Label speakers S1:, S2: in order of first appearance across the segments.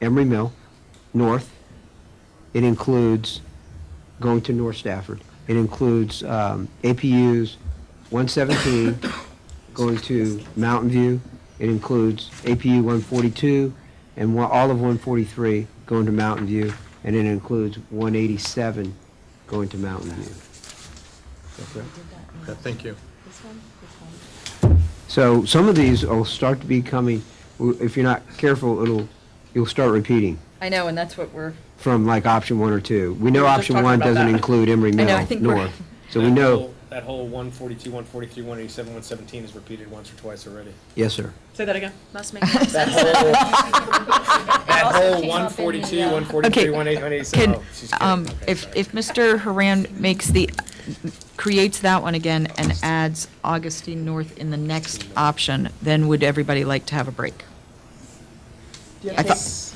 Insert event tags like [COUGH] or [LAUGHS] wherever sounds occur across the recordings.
S1: Emery Mill, north. It includes going to North Stafford. It includes um, APUs 117 [COUGHS] going to Mountain View. It includes APU 142 and one- all of 143 going to Mountain View. And it includes 187 going to Mountain View.
S2: Okay, Thank you.
S3: This one, this one.
S1: So some of these will start to be coming, if you're not careful, it'll, you'll start repeating
S3: I know, and that's what we're,
S1: from like option one or two. We know
S3: We were just
S1: option
S3: talking
S1: one
S3: about
S1: doesn't
S3: that.
S1: include Emery
S3: I know,
S1: Mill
S3: I think we're- [LAUGHS]
S1: North. So we
S4: That
S1: know,
S4: whole- That whole 142, 143, 187, 117 is repeated once or twice already.
S1: yes, sir.
S5: Say that again.
S6: Must make more
S4: That
S6: sense.
S4: whole, that
S6: also
S4: whole
S6: came up in the,
S4: 142,
S6: uh,
S4: 143,
S7: Okay,
S4: 187,
S7: Could,
S4: oh, she's
S7: um,
S4: kidding. Okay,
S7: if,
S4: sorry.
S7: if Mr. Haran makes the, creates that one again and adds Augustine North in the next option, then would everybody like to have a break? I thought-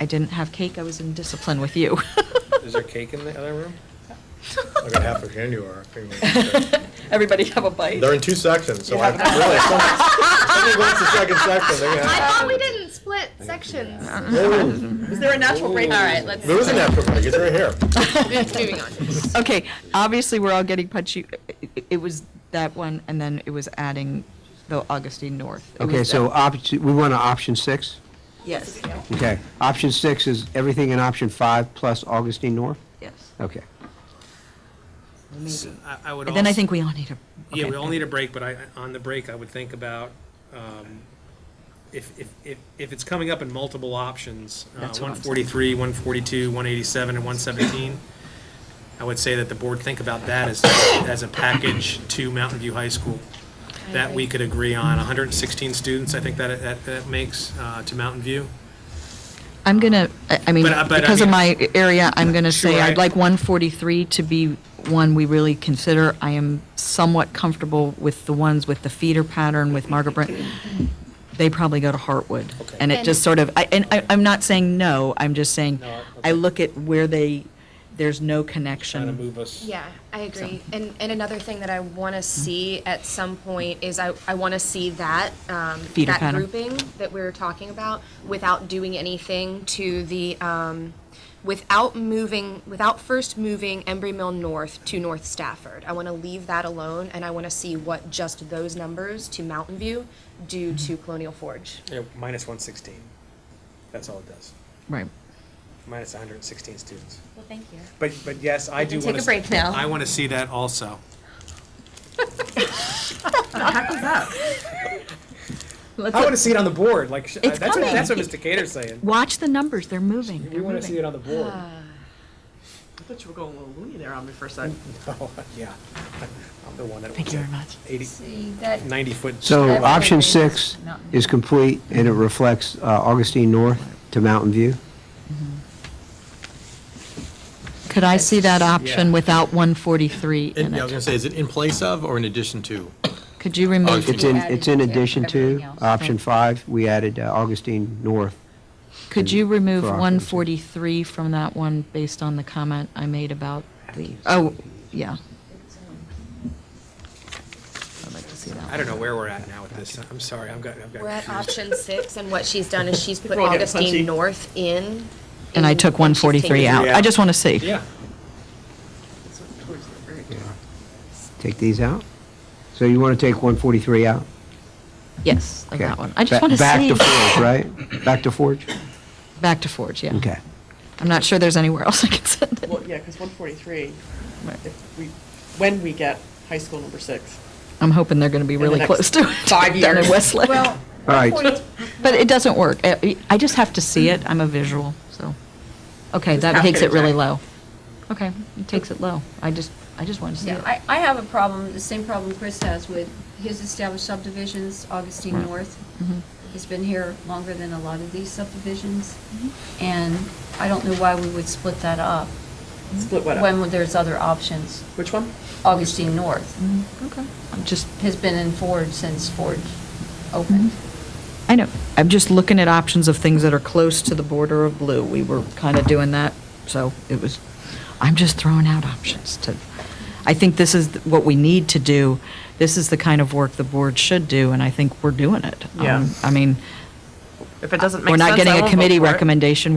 S7: I didn't have cake, I was in discipline
S1: [LAUGHS]
S7: with you. [LAUGHS]
S4: Is there cake in the other room?
S2: I got half a candy bar. They're
S7: [LAUGHS] Everybody have a bite?
S2: in two sections, so I, really, if somebody wants the second section, they're gonna
S6: I
S2: have.
S6: thought we didn't split sections.
S2: Whoa,
S5: Is there a natural break?
S6: All right, let's.
S2: There is an after break, it's right here.
S6: Moving on.
S7: Okay, obviously, we're all getting punchy, It- it- it was that one, and then it was adding the Augustine North. It
S1: Okay,
S7: was
S1: so
S7: that-
S1: option, we want to option six?
S7: Yes,
S1: Okay. Option six is everything in option five plus Augustine North?
S7: yes.
S1: Okay.
S4: I- I would
S7: And then I
S4: also-
S7: think we all need a.
S4: Yeah,
S7: okay.
S4: we all need a break, but I, on the break, I would think about, um, if, if, if, if it's coming up in multiple options, uh,
S7: That's what I'm
S4: one
S7: saying.
S4: forty-three, one forty-two, one eighty-seven, and one seventeen, I would say that the board think about that as, as a package to Mountain View High School, that we could agree on, hundred and sixteen students, I think that, that, that makes, uh, to Mountain View.
S7: I'm gonna, I I mean,
S4: But, uh, but I
S7: because of
S4: mean-
S7: my area, I'm gonna say
S4: Sure, I-
S7: I'd like 143 to be one we really consider. I am somewhat comfortable with the ones with the feeder pattern with Margaret Brent. They probably go to Hartwood. And it just sort of, I- and I, I'm not saying no, I'm just saying,
S4: No,
S7: I
S4: okay.
S7: look at where they, there's no
S4: Trying to
S7: connection.
S4: move us.
S6: Yeah, I agree. And, and another thing that I want to see at some point is I, I want to see that, um,
S7: Feeder
S6: that
S7: pattern.
S6: grouping that we were talking about without doing anything to the, um, without moving, without first moving Embry Mill North to North Stafford. I want to leave that alone and I want to see what just those numbers to Mountain View do to Colonial Forge.
S4: Yeah, minus one sixteen, that's all it does,
S7: Right.
S4: minus hundred and sixteen students.
S3: well, thank you.
S4: But, but yes, I do
S3: can
S4: want to.
S3: take a break now.
S4: I want to see that also. I want to see it on the board, like, sh-
S7: It's
S4: that's what, that's what
S7: coming.
S4: Mr. Cater's saying.
S7: Watch the numbers, they're moving,
S4: We
S7: they're
S4: want to see it
S7: moving.
S4: on the board.
S5: I thought you were going a little loony there on me for a second.
S4: Oh, yeah. I'm the one that
S7: Thank
S4: was
S7: you
S4: at
S7: very much.
S4: eighty,
S3: See, that,
S4: ninety foot.
S1: So
S3: That's
S1: option
S3: okay.
S1: six
S3: Mountain
S1: is complete and it reflects uh, Augustine North to Mountain View?
S7: Could I see that option
S4: Yeah.
S7: without 143
S2: Yeah, I
S7: in
S2: was gonna
S7: it?
S2: say, is it in place of or in addition to?
S7: Could you remove?
S1: Oh, It's in,
S3: added
S1: it's in
S3: to
S1: addition to
S3: everything else.
S1: option five, we added uh, Augustine North.
S7: Could you remove
S1: for occupancy.
S7: 143 from that one based on the comment I made about the, oh, yeah. I'd like to see that.
S4: I don't know where we're at now with this. I'm sorry, I've got, I've got.
S6: We're at
S4: confused.
S6: option six, and what she's done is she's put
S5: We're all getting punchy.
S6: Augustine North in.
S7: And I
S6: in-
S7: took
S6: and she's taken
S7: 143 out.
S4: Yeah.
S7: I just want to see.
S4: Yeah,
S1: Take these out? So you want to take 143 out?
S7: Yes, like
S1: Okay.
S7: that one. I
S1: Ba-
S7: just want to see.
S1: Back to Forge,
S7: [LAUGHS]
S1: right? Back to Forge?
S7: Back to Forge, yeah.
S1: Okay.
S7: I'm not sure there's anywhere else I can send it.
S5: Well, yeah, because 143, if we, when we get high school number six.
S7: I'm hoping they're going to be
S5: the
S7: really
S5: next
S7: close to it.
S5: five
S7: [LAUGHS] Down in
S5: years.
S7: Westlake. But
S1: All right,
S7: it doesn't work. I I just have to see it. I'm a visual, so. Okay, that
S5: have
S7: takes
S5: to
S7: it really
S5: check.
S7: low. Okay, it takes it low. I just, I just wanted to see
S8: Yeah,
S7: it.
S8: I, I have a problem, the same problem Chris has with his established subdivisions, Augustine
S5: Mm-hmm.
S8: North.
S7: Mm-hmm.
S8: He's been here longer than a lot of these subdivisions, and I don't know why we would split that up
S5: Split what up?
S8: when there's other options.
S5: Which one?
S8: Augustine North
S7: Mm-hmm. Okay. I'm just
S8: has been in Ford since Ford opened.
S5: Mm-hmm.
S7: I know. I'm just looking at options of things that are close to the border of blue. We were kind of doing that, so it was, I'm just throwing out options to, I think this is what we need to do. This is the kind of work the board should do, and I think we're doing it.
S5: Yeah.
S7: Um, I mean,
S5: If it doesn't make
S7: We're
S5: sense, I
S7: not getting
S5: won't
S7: a
S5: vote
S7: committee
S5: for it.
S7: recommendation,